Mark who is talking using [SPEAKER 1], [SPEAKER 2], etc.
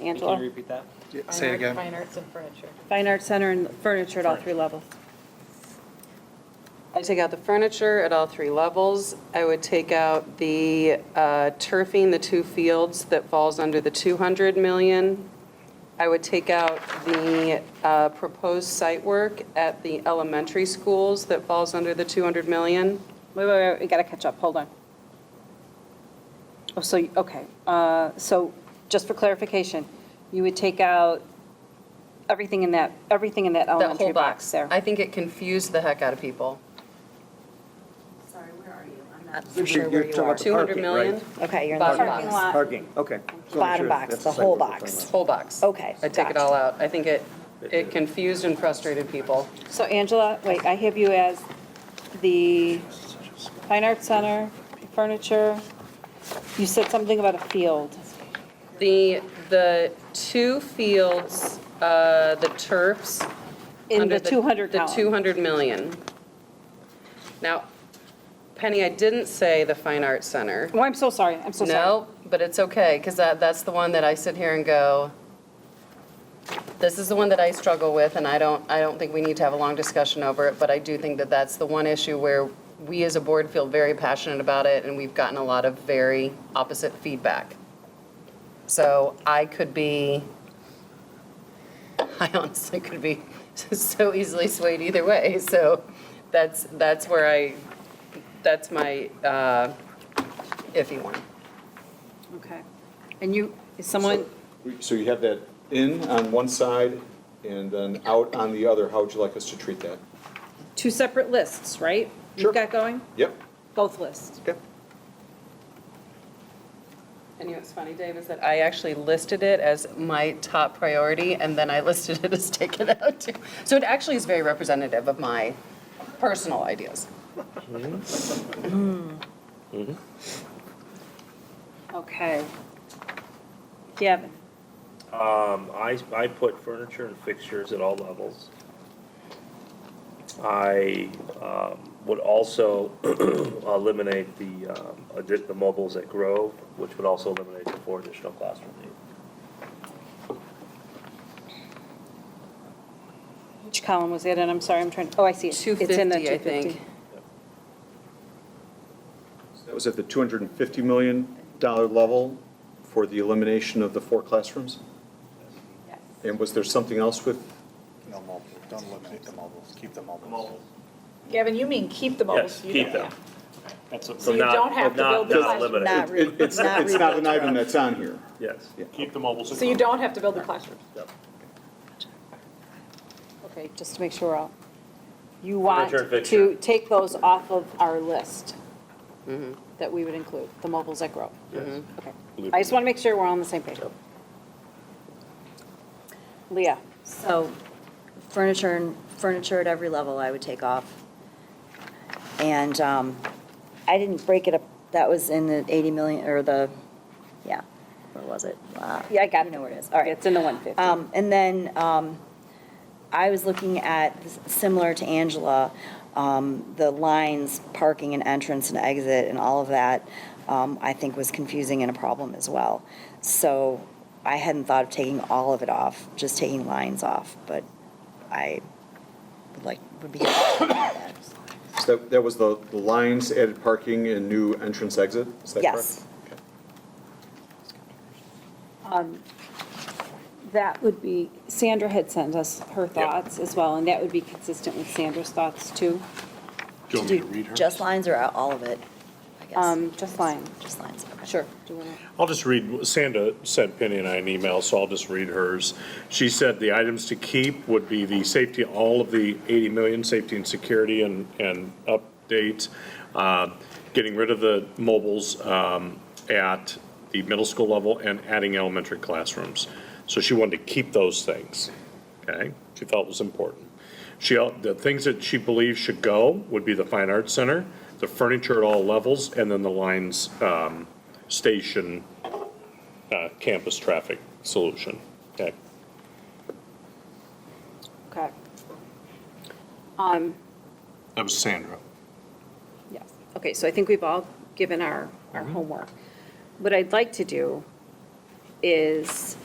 [SPEAKER 1] Angela.
[SPEAKER 2] Can you repeat that?
[SPEAKER 3] Yeah, Say it again.
[SPEAKER 4] Fine arts and furniture.
[SPEAKER 1] Fine Arts Center and furniture at all three levels.
[SPEAKER 5] I take out the furniture at all three levels. I would take out the uh, turfing, the two fields that falls under the 200 million. I would take out the uh, proposed site work at the elementary schools that falls under the 200 million.
[SPEAKER 1] Wait, wait, wait, we gotta catch up, hold on. Oh, so, you- okay, uh, so, just for clarification, you would take out everything in that, everything in that
[SPEAKER 5] That whole
[SPEAKER 1] elementary box
[SPEAKER 5] box.
[SPEAKER 1] there?
[SPEAKER 5] I think it confused the heck out of people.
[SPEAKER 6] Sorry, where are you? I'm not.
[SPEAKER 7] You're-
[SPEAKER 6] sure
[SPEAKER 7] you're
[SPEAKER 6] where you
[SPEAKER 7] talking
[SPEAKER 6] are.
[SPEAKER 7] about
[SPEAKER 5] 200
[SPEAKER 7] parking,
[SPEAKER 5] million,
[SPEAKER 7] right?
[SPEAKER 8] Okay, you're in
[SPEAKER 5] bottom
[SPEAKER 8] the
[SPEAKER 6] Parking
[SPEAKER 5] box,
[SPEAKER 6] lot.
[SPEAKER 7] Parking, okay. So I'm
[SPEAKER 8] Bottom
[SPEAKER 7] sure
[SPEAKER 8] box,
[SPEAKER 7] that's
[SPEAKER 8] the
[SPEAKER 7] site
[SPEAKER 8] whole
[SPEAKER 7] we're talking
[SPEAKER 8] box.
[SPEAKER 7] about.
[SPEAKER 5] whole box.
[SPEAKER 8] Okay,
[SPEAKER 5] I take it
[SPEAKER 8] gotcha.
[SPEAKER 5] all out. I think it, it confused and frustrated people.
[SPEAKER 1] So Angela, wait, I have you as the Fine Arts Center, furniture, you said something about a field.
[SPEAKER 5] The, the two fields, uh, the turfs.
[SPEAKER 1] In
[SPEAKER 5] under
[SPEAKER 1] the 200 column.
[SPEAKER 5] The 200 million. Now, Penny, I didn't say the Fine Arts Center.
[SPEAKER 1] Oh, I'm so sorry, I'm so sorry.
[SPEAKER 5] No, but it's okay, because that, that's the one that I sit here and go, this is the one that I struggle with, and I don't, I don't think we need to have a long discussion over it, but I do think that that's the one issue where we as a board feel very passionate about it, and we've gotten a lot of very opposite feedback. So I could be, I honestly could be so easily swayed either way, so that's, that's where I, that's my uh, iffy one.
[SPEAKER 1] Okay. And you, is someone,
[SPEAKER 9] So you have that in on one side and then out on the other. How would you like us to treat that?
[SPEAKER 1] two separate lists, right?
[SPEAKER 9] Sure.
[SPEAKER 1] You've got going?
[SPEAKER 9] Yep,
[SPEAKER 1] Both lists.
[SPEAKER 9] okay.
[SPEAKER 5] And you know what's funny, Dave, is that I actually listed it as my top priority, and then I listed it as taken out too. So it actually is very representative of my personal ideas.
[SPEAKER 1] Okay. Gavin,
[SPEAKER 10] Um, I, I put furniture and fixtures at all levels. I, um, would also eliminate the, um, addi- the mobiles at Grove, which would also eliminate the four additional classroom needs.
[SPEAKER 1] which column was it in? I'm sorry, I'm trying, oh, I see it. It's in the
[SPEAKER 5] 250, I think.
[SPEAKER 9] That was at the $250 million level for the elimination of the four classrooms? And was there something else with,
[SPEAKER 3] No mobiles, don't eliminate the mobiles, keep the mobiles.
[SPEAKER 4] Gavin, you mean keep the mobiles?
[SPEAKER 10] Yes,
[SPEAKER 4] you
[SPEAKER 10] keep
[SPEAKER 4] don't-
[SPEAKER 10] them.
[SPEAKER 2] That's what-
[SPEAKER 4] So you
[SPEAKER 10] not-
[SPEAKER 4] don't have to build
[SPEAKER 10] not-
[SPEAKER 4] the
[SPEAKER 10] not
[SPEAKER 4] classroom.
[SPEAKER 10] eliminate.
[SPEAKER 8] Not re-
[SPEAKER 9] It- it's it's not an
[SPEAKER 8] rebuilt.
[SPEAKER 9] item that's on here.
[SPEAKER 10] Yes.
[SPEAKER 2] Keep the mobiles.
[SPEAKER 4] yeah. So you don't have to build the classrooms.
[SPEAKER 10] Yep.
[SPEAKER 1] Okay, just to make sure we're all, you want
[SPEAKER 10] Furniture and
[SPEAKER 1] to
[SPEAKER 10] fixture.
[SPEAKER 1] take those off of our list
[SPEAKER 5] Mm-hmm.
[SPEAKER 1] that we would include, the mobiles at Grove? Okay. I just want to make sure we're all on the same page. Leah,
[SPEAKER 8] So furniture and furniture at every level I would take off. And um, I didn't break it up, that was in the 80 million, or the, yeah, where was it? Uh,
[SPEAKER 1] Yeah, I got
[SPEAKER 8] You
[SPEAKER 1] it.
[SPEAKER 8] know where it is, all right.
[SPEAKER 1] it's in the 150.
[SPEAKER 8] Um, And then um, I was looking at, similar to Angela, um, the lines, parking and entrance and exit and all of that, um, I think was confusing and a problem as well. So I hadn't thought of taking all of it off, just taking lines off, but I would like, would be.
[SPEAKER 9] So That that was the the lines, added parking, and new entrance exit? Is that correct?
[SPEAKER 8] Yes.
[SPEAKER 1] That would be, Sandra had sent us her thoughts as well, and that would be consistent with Sandra's thoughts too.
[SPEAKER 3] Do you want me to read her?
[SPEAKER 8] Just lines or all of it, I guess?
[SPEAKER 1] Um, Just line,
[SPEAKER 8] Just lines, okay.
[SPEAKER 1] sure. Do you want to?
[SPEAKER 7] I'll just read, Sandra sent Penny and I an email, so I'll just read hers. She said the items to keep would be the safety, all of the 80 million, safety and security and, and updates, uh, getting rid of the mobiles um, at the middle school level and adding elementary classrooms. So she wanted to keep those things, okay? She felt was important. She, al- the things that she believes should go would be the Fine Arts Center, the furniture at all levels, and then the lines um, station uh, campus traffic solution. Okay.
[SPEAKER 1] Okay,
[SPEAKER 7] That was Sandra.
[SPEAKER 1] yes. Okay, so I think we've all given our, our homework. What I'd like to do is